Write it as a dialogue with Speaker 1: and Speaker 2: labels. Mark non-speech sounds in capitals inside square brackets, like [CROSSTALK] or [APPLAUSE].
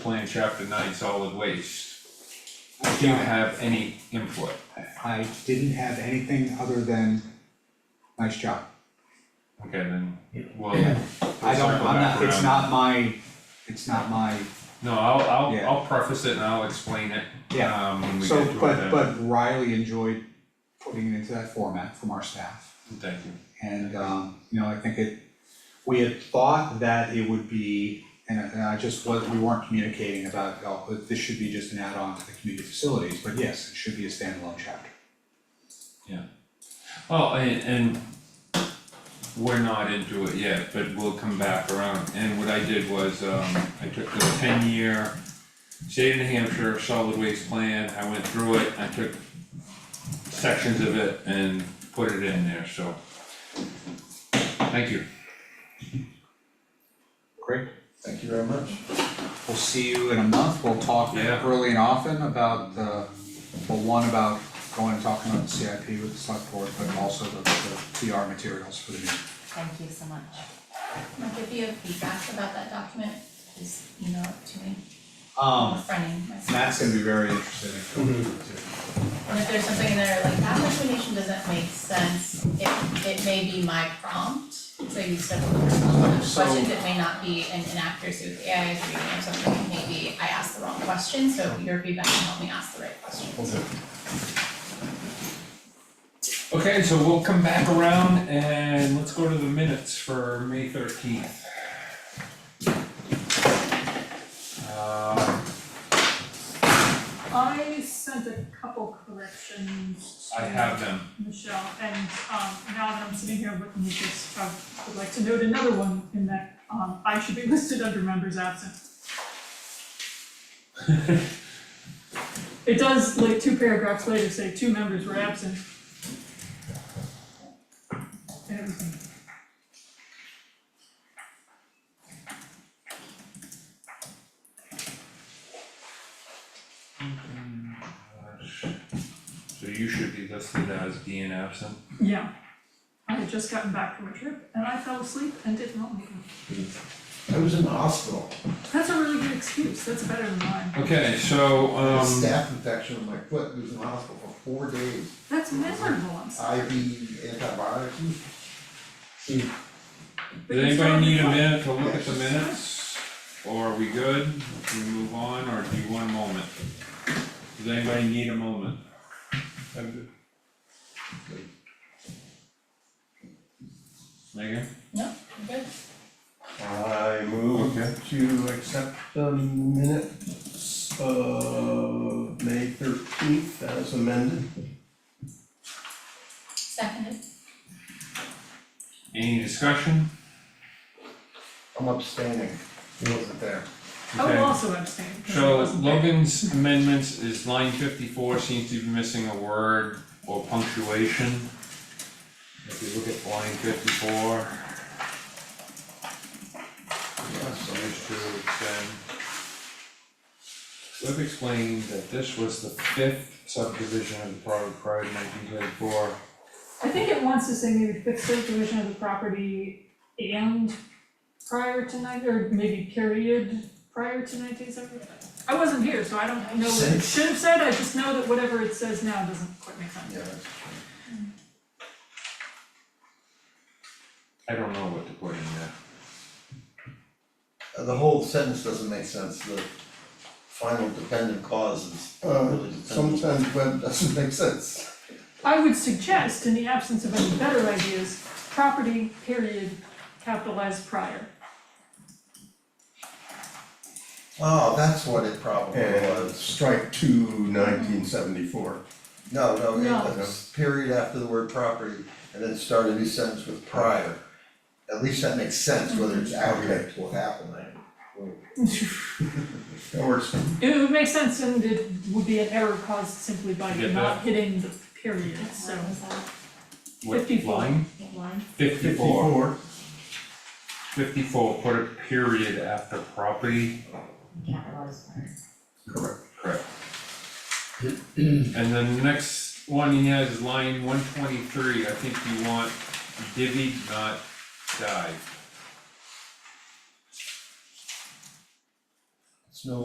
Speaker 1: plan chapter nine solid waste, do you have any input?
Speaker 2: I didn't have anything other than, nice job.
Speaker 1: Okay, then, well.
Speaker 2: I don't, I'm not, it's not my, it's not my,
Speaker 1: No, I'll, I'll,
Speaker 2: Yeah.
Speaker 1: I'll preface it and I'll explain it,
Speaker 2: yeah.
Speaker 1: um, when we
Speaker 2: So,
Speaker 1: get to it
Speaker 2: but,
Speaker 1: then.
Speaker 2: but Riley enjoyed putting it into that format from our staff.
Speaker 1: Thank you.
Speaker 2: And, um, you know, I think it, we had thought that it would be, and I- and I just, was we weren't communicating about, oh, but this should be just an add-on to the community facilities, but yes, it should be a standalone chapter.
Speaker 1: Oh, and, and we're not into it yet, but we'll come back around, and what I did was, um, I took the ten-year state of New Hampshire solid waste plan, I went through it, I took sections of it and put it in there, so. Thank you.
Speaker 2: Great.
Speaker 3: Thank you very much.
Speaker 2: We'll see you in a month, we'll talk
Speaker 1: Yeah.
Speaker 2: early and often about the, well, one about going and talking about the CIP with the select board, but also the, the PR materials for the meeting.
Speaker 4: Thank you so much.
Speaker 5: Like if you have feedback about that document, just email it to me, I'm
Speaker 2: Um,
Speaker 5: fronting myself.
Speaker 2: Matt's gonna be very interested in going too.
Speaker 5: And if there's something in there like that recommendation doesn't make sense, it it may be my prompt, so you still have
Speaker 2: So-
Speaker 5: questions, it may not be an inaccuracy with the AI is reading or something, maybe I asked the wrong question, so your feedback can help me ask the right question.
Speaker 1: Okay, so we'll come back around and let's go to the minutes for May thirteenth. Uh,
Speaker 6: I sent a couple corrections
Speaker 1: I
Speaker 6: to
Speaker 1: have them,
Speaker 6: Michelle, and um now that I'm sitting here looking at this, I would like to note another one in that um I should be [LAUGHS] listed under
Speaker 1: [LAUGHS]
Speaker 6: members absent. It does, like, two paragraphs later say two members were absent. And everything.
Speaker 1: so you should be listed as being absent.
Speaker 6: Yeah. I had just gotten back from a trip and I fell asleep and did not make it.
Speaker 3: I was in the hospital,
Speaker 6: That's a really good excuse, that's better than mine.
Speaker 1: Okay, so,
Speaker 3: I had a
Speaker 1: um,
Speaker 3: staph infection in my foot, I was in the hospital for four days,
Speaker 6: That's miserable, I'm sorry.
Speaker 3: IV antibiotics.
Speaker 1: did anybody need a minute to look at the minutes? Or are we good? Can we move on, or do you want a moment? Does anybody need a moment? Megan?
Speaker 5: No, I'm good.
Speaker 7: I move to accept the minutes of May thirteenth as amended.
Speaker 5: Seconded,
Speaker 1: Any discussion?
Speaker 3: I'm abstaining, I wasn't there.
Speaker 6: I would
Speaker 1: Okay.
Speaker 6: also abstain, because I
Speaker 1: So
Speaker 6: wasn't there.
Speaker 1: Logan's amendments is line fifty-four seems to be missing a word or punctuation. If you look at line fifty-four. So there's two, then. We've explained that this was the fifth subdivision of the Pride Pride nineteen thirty-four.
Speaker 6: I think it wants to say maybe fifth subdivision of the property and prior to nine, or maybe period prior to nineteen seventy-five. I wasn't here, so I don't know what it
Speaker 3: Since.
Speaker 6: should have said, I just know that whatever it says now doesn't quite make sense.
Speaker 3: Yeah, that's true.
Speaker 1: I don't know what to put in there.
Speaker 3: Uh, The whole sentence doesn't make sense, the final dependent cause is
Speaker 7: Uh,
Speaker 3: really dependent.
Speaker 7: sometimes web
Speaker 3: Doesn't make sense.
Speaker 6: I would suggest, in the absence of any better ideas, property period capitalized prior.
Speaker 3: Oh, that's what it probably
Speaker 7: and
Speaker 3: was.
Speaker 7: strike two nineteen seventy-four.
Speaker 3: No, no,
Speaker 6: No.
Speaker 3: it was period after the word property, and then start a new sentence with prior. At least that makes sense, whether it's
Speaker 7: Mm-hmm.
Speaker 3: outright what happened there.
Speaker 7: [LAUGHS] That works.
Speaker 6: It would make sense and it would be an error caused simply by
Speaker 1: Get
Speaker 6: not hitting the period, so.
Speaker 4: What was that?
Speaker 1: What
Speaker 6: 54.
Speaker 1: line?
Speaker 4: What line?
Speaker 1: Fifty-four. Fifty-four, put a period after property.
Speaker 4: Capitalized part.
Speaker 7: Correct.
Speaker 1: Correct. And then the next one he has is line one twenty-three, I think you want divvied, not dived.